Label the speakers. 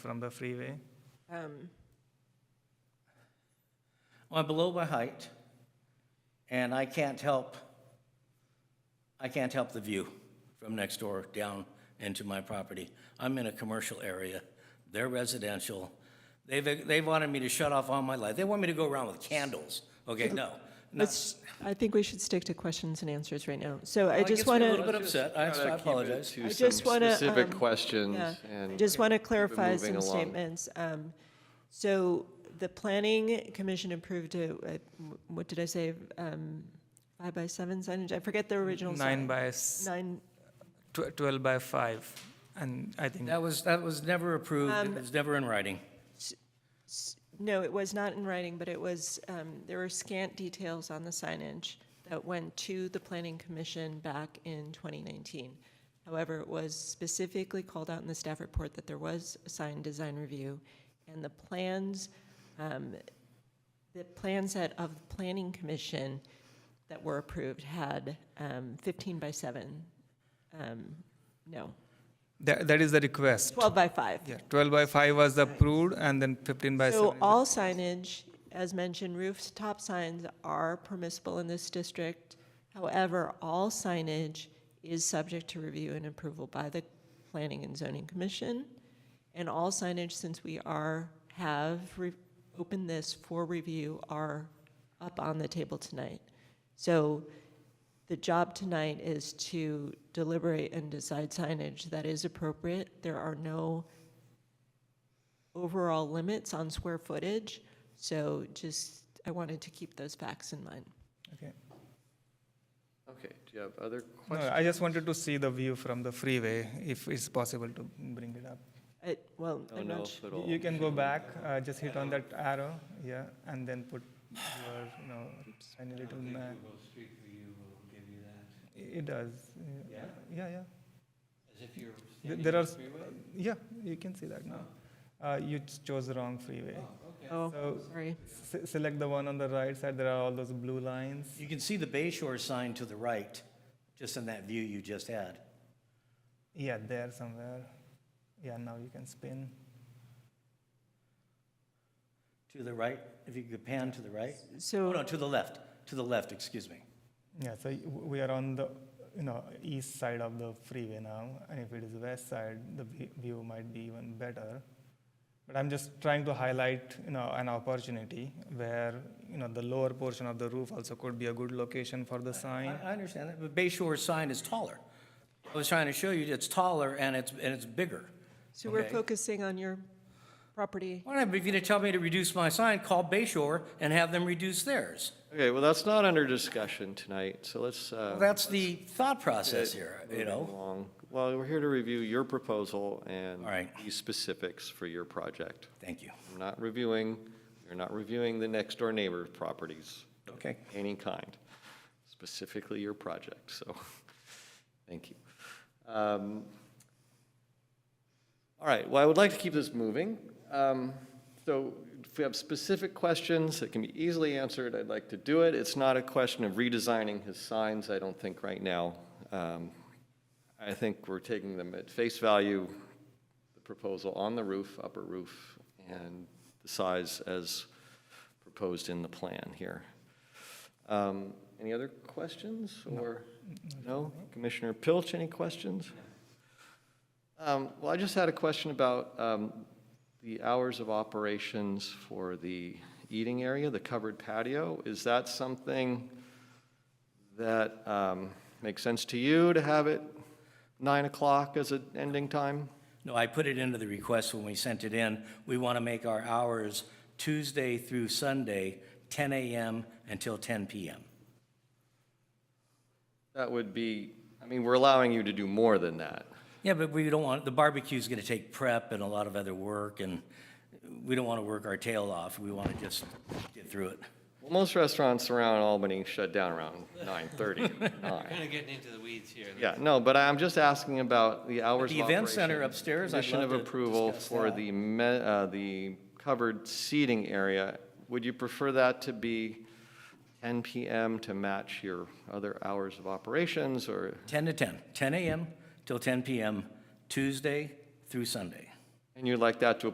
Speaker 1: from the freeway.
Speaker 2: Um,
Speaker 3: Well, I'm below my height, and I can't help, I can't help the view from next door down into my property. I'm in a commercial area, they're residential. They've, they've wanted me to shut off all my light. They want me to go around with candles. Okay, no. no.
Speaker 2: Let's, I think we should stick to questions and answers right now. So I
Speaker 3: Well, it
Speaker 2: just
Speaker 3: gets me
Speaker 2: want
Speaker 3: A little bit
Speaker 2: to,
Speaker 3: upset, I I apologize.
Speaker 2: I
Speaker 4: To some
Speaker 2: just wanna,
Speaker 4: specific
Speaker 2: um,
Speaker 4: questions
Speaker 2: yeah,
Speaker 4: and.
Speaker 2: I just want to clarify
Speaker 4: moving
Speaker 2: some
Speaker 4: along.
Speaker 2: statements. Um, So the planning commission approved a, a- what did I say? um, Five by seven signage? I forget the original.
Speaker 1: Nine
Speaker 2: sign.
Speaker 1: by, s-
Speaker 2: Nine,
Speaker 1: tw- twelve by five, and I think,
Speaker 3: That was, that was never approved,
Speaker 2: Um,
Speaker 3: it was never in writing.
Speaker 2: no, it was not in writing, but it was, um, there were scant details on the signage that went to the planning commission back in 2019. However, it was specifically called out in the staff report that there was a sign design review, and the plans, um, the plan set of the planning commission that were approved had um, 15 by 7, um, no,
Speaker 1: that, that is the request.
Speaker 2: 12 by 5.
Speaker 1: Yeah, twelve by five was approved, and then fifteen by seven.
Speaker 2: So
Speaker 1: is the-
Speaker 2: all signage, as mentioned, rooftop signs are permissible in this district. However, all signage is subject to review and approval by the Planning and Zoning Commission. And all signage, since we are, have re- opened this for review, are up on the table tonight. So the job tonight is to deliberate and decide signage that is appropriate. There are no overall limits on square footage, so just, I wanted to keep those facts in mind.
Speaker 1: Okay.
Speaker 4: Okay, do you have other
Speaker 1: No,
Speaker 4: questions?
Speaker 1: I just wanted to see the view from the freeway, if it's possible to bring it up.
Speaker 2: I- Well,
Speaker 4: I
Speaker 2: I'm
Speaker 4: don't know
Speaker 2: not,
Speaker 4: if
Speaker 2: su-
Speaker 4: at
Speaker 1: You-
Speaker 4: all.
Speaker 1: You can go back, uh, just hit on that arrow, yeah, and then put your, you know, tiny little map.
Speaker 5: Street View will give you that,
Speaker 1: It does, yeah, yeah, yeah.
Speaker 5: as if you're
Speaker 1: Th-
Speaker 5: standing
Speaker 1: there
Speaker 5: on
Speaker 1: are
Speaker 5: the freeway. Oh.
Speaker 1: Yeah, you can see that now. Uh, you ch- chose the wrong freeway.
Speaker 2: oh,
Speaker 1: So-
Speaker 2: sorry.
Speaker 1: Se- select the one on the right side, there are all those blue lines.
Speaker 3: You can see the Bay Shore sign to the right, just in that view you just had.
Speaker 1: Yeah, there somewhere. Yeah, now you can spin.
Speaker 3: To the right, if you could pan to the right. Oh, no,
Speaker 2: So,
Speaker 3: to the left, to the left, excuse me.
Speaker 1: Yeah, so y- w- we are on the you know east side of the freeway now, and if it is west side, the vi- view might be even better. But I'm just trying to highlight you know an opportunity where you know the lower portion of the roof also could be a good location for the sign.
Speaker 3: I I understand that, but Bay Shore sign is taller. I was trying to show you, it's taller and it's, and it's bigger.
Speaker 2: so we're
Speaker 3: Okay.
Speaker 2: focusing on your property.
Speaker 3: Why not, if you're gonna tell me to reduce my sign, call Bay Shore and have them reduce theirs.
Speaker 4: Okay, well, that's not under discussion tonight, so let's. uh,
Speaker 3: That's the thought process
Speaker 4: get
Speaker 3: here, you
Speaker 4: moving
Speaker 3: know?
Speaker 4: along. Well, we're here to review your proposal and.
Speaker 3: All right.
Speaker 4: These specifics for your project.
Speaker 3: Thank you.
Speaker 4: I'm not reviewing, you're not reviewing the next door neighbor properties.
Speaker 3: Okay.
Speaker 4: any kind, specifically your project, so, thank you. Um, All right, well, I would like to keep this moving. Um, So if we have specific questions that can be easily answered, I'd like to do it. It's not a question of redesigning his signs, I don't think, right now. Um, I think we're taking them at face value, the proposal on the roof, upper roof, and the size as proposed in the plan here. Um, Any other questions, or, no? Commissioner Pilch, any questions? Um, Well, I just had a question about um, the hours of operations for the eating area, the covered patio. Is that something that um, makes sense to you, to have it 9 o'clock as an ending time?
Speaker 3: No, I put it into the request when we sent it in. We want to make our hours Tuesday through Sunday, 10 a.m. until 10 p.m.
Speaker 4: That would be, I mean, we're allowing you to do more than that.
Speaker 3: Yeah, but we don't want, the barbecue's going to take prep and a lot of other work, and we don't want to work our tail off. We want to just get through it.
Speaker 4: Well, Most restaurants around Albany shut down around 9:30, 9.
Speaker 5: Kind of getting into the weeds here.
Speaker 4: Yeah, no, but I'm just asking about the hours of
Speaker 3: The event center
Speaker 4: operation.
Speaker 3: upstairs, I'd
Speaker 4: Condition
Speaker 3: love
Speaker 4: of
Speaker 3: to
Speaker 4: approval
Speaker 3: discuss
Speaker 4: for
Speaker 3: that.
Speaker 4: the, me- uh, the covered seating area. Would you prefer that to be 10 PM to match your other hours of operations, or,
Speaker 3: 10 to 10, 10 a.m. till 10 p.m., Tuesday through Sunday.
Speaker 4: and you'd like that to